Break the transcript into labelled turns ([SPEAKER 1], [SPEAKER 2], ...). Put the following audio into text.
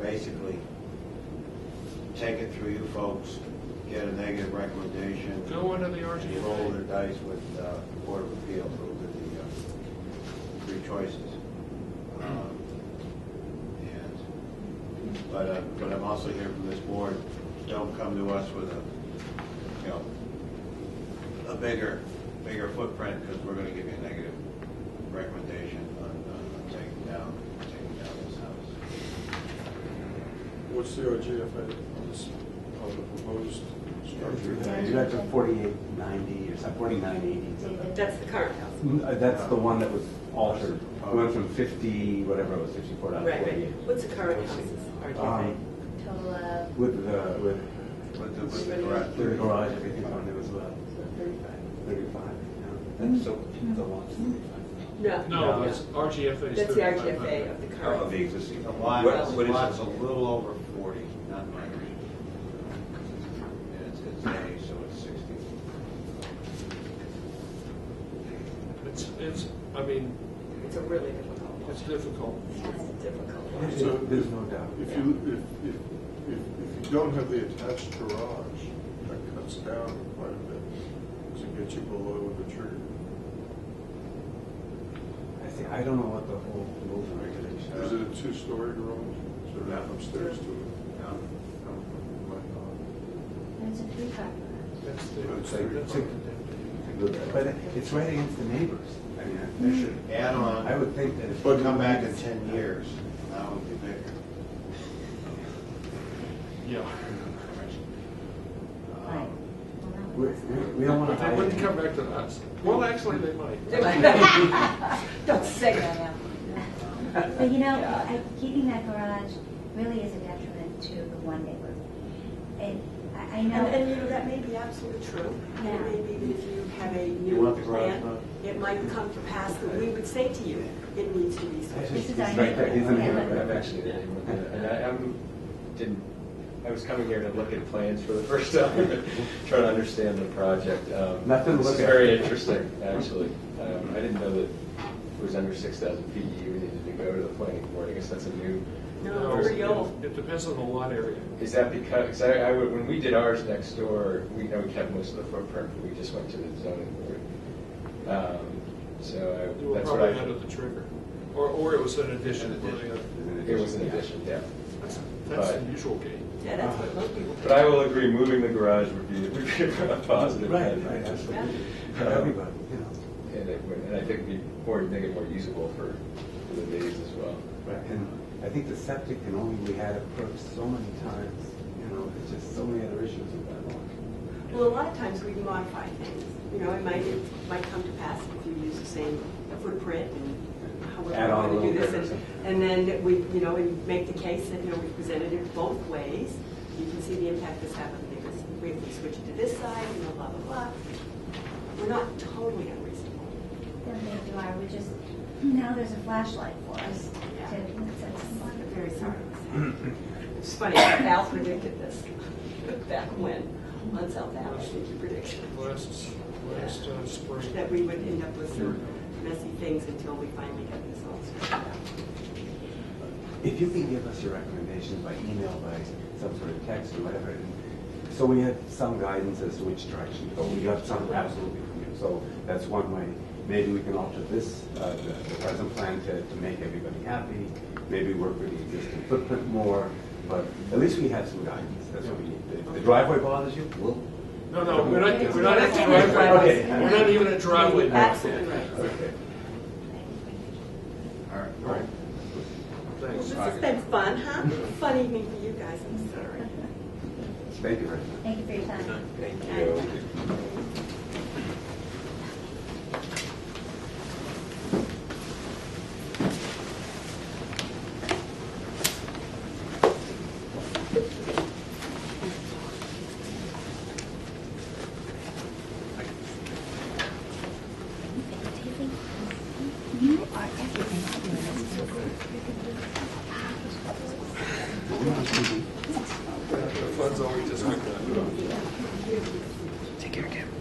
[SPEAKER 1] basically take it through you folks, get a negative recommendation.
[SPEAKER 2] Go under the
[SPEAKER 1] and you Roll the
[SPEAKER 2] RGFA.
[SPEAKER 1] dice with uh, the Board of Appeals, those are the uh, three choices. Um, And, but, uh, but I'm also here from this board, don't come to us with a, you know, a bigger, bigger footprint, because we're gonna give you a negative recommendation on, on taking down, taking down this house.
[SPEAKER 3] What's the RGFA on this, on the proposed structure?
[SPEAKER 4] You got to forty-eight ninety or something, forty-nine eighty.
[SPEAKER 5] That's the current house.
[SPEAKER 4] That's the one that was altered. It went from fifty, whatever it was, fifty-four down to
[SPEAKER 5] Right, right.
[SPEAKER 4] forty-eight.
[SPEAKER 5] What's the current house's RDFA?
[SPEAKER 4] Um,
[SPEAKER 6] Total of
[SPEAKER 4] With the, with
[SPEAKER 1] With the, with the garage.
[SPEAKER 4] the garage, everything on it was about thirty-five. That's so, the lot's
[SPEAKER 5] No.
[SPEAKER 2] No, that's RGFA. is
[SPEAKER 5] That's the
[SPEAKER 2] 35.
[SPEAKER 5] RGFA of the
[SPEAKER 7] Of
[SPEAKER 4] Oh,
[SPEAKER 5] current.
[SPEAKER 7] the existing.
[SPEAKER 1] The lot,
[SPEAKER 7] What- what
[SPEAKER 1] the
[SPEAKER 7] is it?
[SPEAKER 1] lot's a little over forty, not my reading. And it's, it's A, so it's sixty.
[SPEAKER 2] It's, it's, I mean,
[SPEAKER 5] It's a really difficult one.
[SPEAKER 2] it's difficult.
[SPEAKER 5] It's a difficult one.
[SPEAKER 4] There's no, there's no doubt.
[SPEAKER 3] If you, if, if, if, if you don't have the attached garage, that cuts down quite a bit to get you below the trigger.
[SPEAKER 4] I see, I don't know what the whole rules and regulations
[SPEAKER 3] Is it a
[SPEAKER 4] are.
[SPEAKER 3] two-story garage? So that upstairs to it?
[SPEAKER 1] No,
[SPEAKER 3] Might not.
[SPEAKER 6] That's a three car garage.
[SPEAKER 2] That's the,
[SPEAKER 3] That's
[SPEAKER 4] Like,
[SPEAKER 3] three
[SPEAKER 4] it's
[SPEAKER 3] car.
[SPEAKER 4] like- But it's right against the neighbors. I mean,
[SPEAKER 1] They should add on,
[SPEAKER 4] I would think that if.
[SPEAKER 1] but come back in ten years, that would be bigger.
[SPEAKER 2] yeah.
[SPEAKER 6] Right.
[SPEAKER 1] Um,
[SPEAKER 6] Well, that
[SPEAKER 4] We,
[SPEAKER 6] would
[SPEAKER 4] we we don't want to
[SPEAKER 2] They
[SPEAKER 4] hide.
[SPEAKER 2] wouldn't
[SPEAKER 4] it.
[SPEAKER 2] come back to us. Well, actually, they might.
[SPEAKER 5] Don't say that out.
[SPEAKER 6] last- But you know, I- keeping that garage really is a detriment to the one neighbor. And I, I
[SPEAKER 8] And, and you
[SPEAKER 6] know,
[SPEAKER 8] know, that may be absolutely true. It may be that if you have a new
[SPEAKER 1] want the garage
[SPEAKER 8] plan, it might come to pass that we would say to you, it needs to be
[SPEAKER 4] It's
[SPEAKER 8] so.
[SPEAKER 4] just-
[SPEAKER 6] This is
[SPEAKER 4] it's
[SPEAKER 6] our
[SPEAKER 4] right there,
[SPEAKER 6] neighbor.
[SPEAKER 4] isn't
[SPEAKER 6] Yeah.
[SPEAKER 4] it?
[SPEAKER 7] I've actually been able to do that. and I, I'm, didn't, I was coming here to look at plans for the first time, trying to understand the project. Um,
[SPEAKER 4] Nothing to
[SPEAKER 7] This
[SPEAKER 4] look
[SPEAKER 7] is
[SPEAKER 4] at.
[SPEAKER 7] very interesting, actually. Um, I didn't know that it was under six thousand feet, you needed to go to the planning board, I guess that's a new.
[SPEAKER 8] No, very old.
[SPEAKER 2] It depends on the lot area.
[SPEAKER 7] Is that because, 'cause I, I, would- when we did ours next door, we, you know, we kept most of the footprint, but we just went to the zoning board. Um, So
[SPEAKER 2] You
[SPEAKER 7] I,
[SPEAKER 2] were
[SPEAKER 7] that's what I.
[SPEAKER 2] probably under the trigger. Or, or it was an addition.
[SPEAKER 1] An addition.
[SPEAKER 7] It was an addition, yeah.
[SPEAKER 2] That's that's the
[SPEAKER 7] But-
[SPEAKER 2] usual game.
[SPEAKER 8] Yeah, that's what most people.
[SPEAKER 7] But I will agree, moving the garage would be, would be a positive.
[SPEAKER 4] Right, right, absolutely. For everybody, you know.
[SPEAKER 7] And it would, and I think it'd be more, make it more usable for, for the bays as well.
[SPEAKER 4] Right, And I think the septic and only we had approached so many times, you know, there's just so many other issues with that lot.
[SPEAKER 8] Well, a lot of times we modify things, you know, it might, it might come to pass if you use the same footprint and how we're
[SPEAKER 4] Add on a
[SPEAKER 8] going to do
[SPEAKER 4] little
[SPEAKER 8] this.
[SPEAKER 4] bit or
[SPEAKER 8] and-
[SPEAKER 4] something.
[SPEAKER 8] And then we, you know, we make the case that, you know, we presented it both ways. You can see the impact this had on the neighbors. We we switched to this side, you know, blah, blah, blah. We're not totally unreasonable.
[SPEAKER 6] then they do, I would just, now there's a flashlight for us
[SPEAKER 8] Yeah.
[SPEAKER 6] to,
[SPEAKER 8] I'm
[SPEAKER 6] that's-
[SPEAKER 8] very sorry. It's funny, Val predicted this back when, on South Ave, I think he predicted
[SPEAKER 2] Last, last uh, spring.
[SPEAKER 8] that we would end up with some messy things until we finally got this all sorted out.
[SPEAKER 4] If you can give us your recommendations by email, by some sort of text or whatever, and so we have some guidance as to which direction to go. We got some absolutely from you, so that's one way. Maybe we can alter this, uh, the the present plan to, to make everybody happy, maybe work with the existing footprint more, but at least we have some guidance, that's what we need. If the driveway bothers you, we'll.
[SPEAKER 2] No, no, we're not, we're not at the
[SPEAKER 8] Okay.
[SPEAKER 2] driveway. We're not even at driveway. now.
[SPEAKER 8] Absolutely right.
[SPEAKER 4] Okay.
[SPEAKER 1] All right.
[SPEAKER 2] All right.
[SPEAKER 8] Well,
[SPEAKER 2] Thanks.
[SPEAKER 8] This has been fun, huh? Fun evening for you guys, I'm sorry.
[SPEAKER 4] Thank you very much.
[SPEAKER 6] thank you for your time.
[SPEAKER 7] Thank you.
[SPEAKER 2] The fun's always just like that.
[SPEAKER 7] Take care, Kim.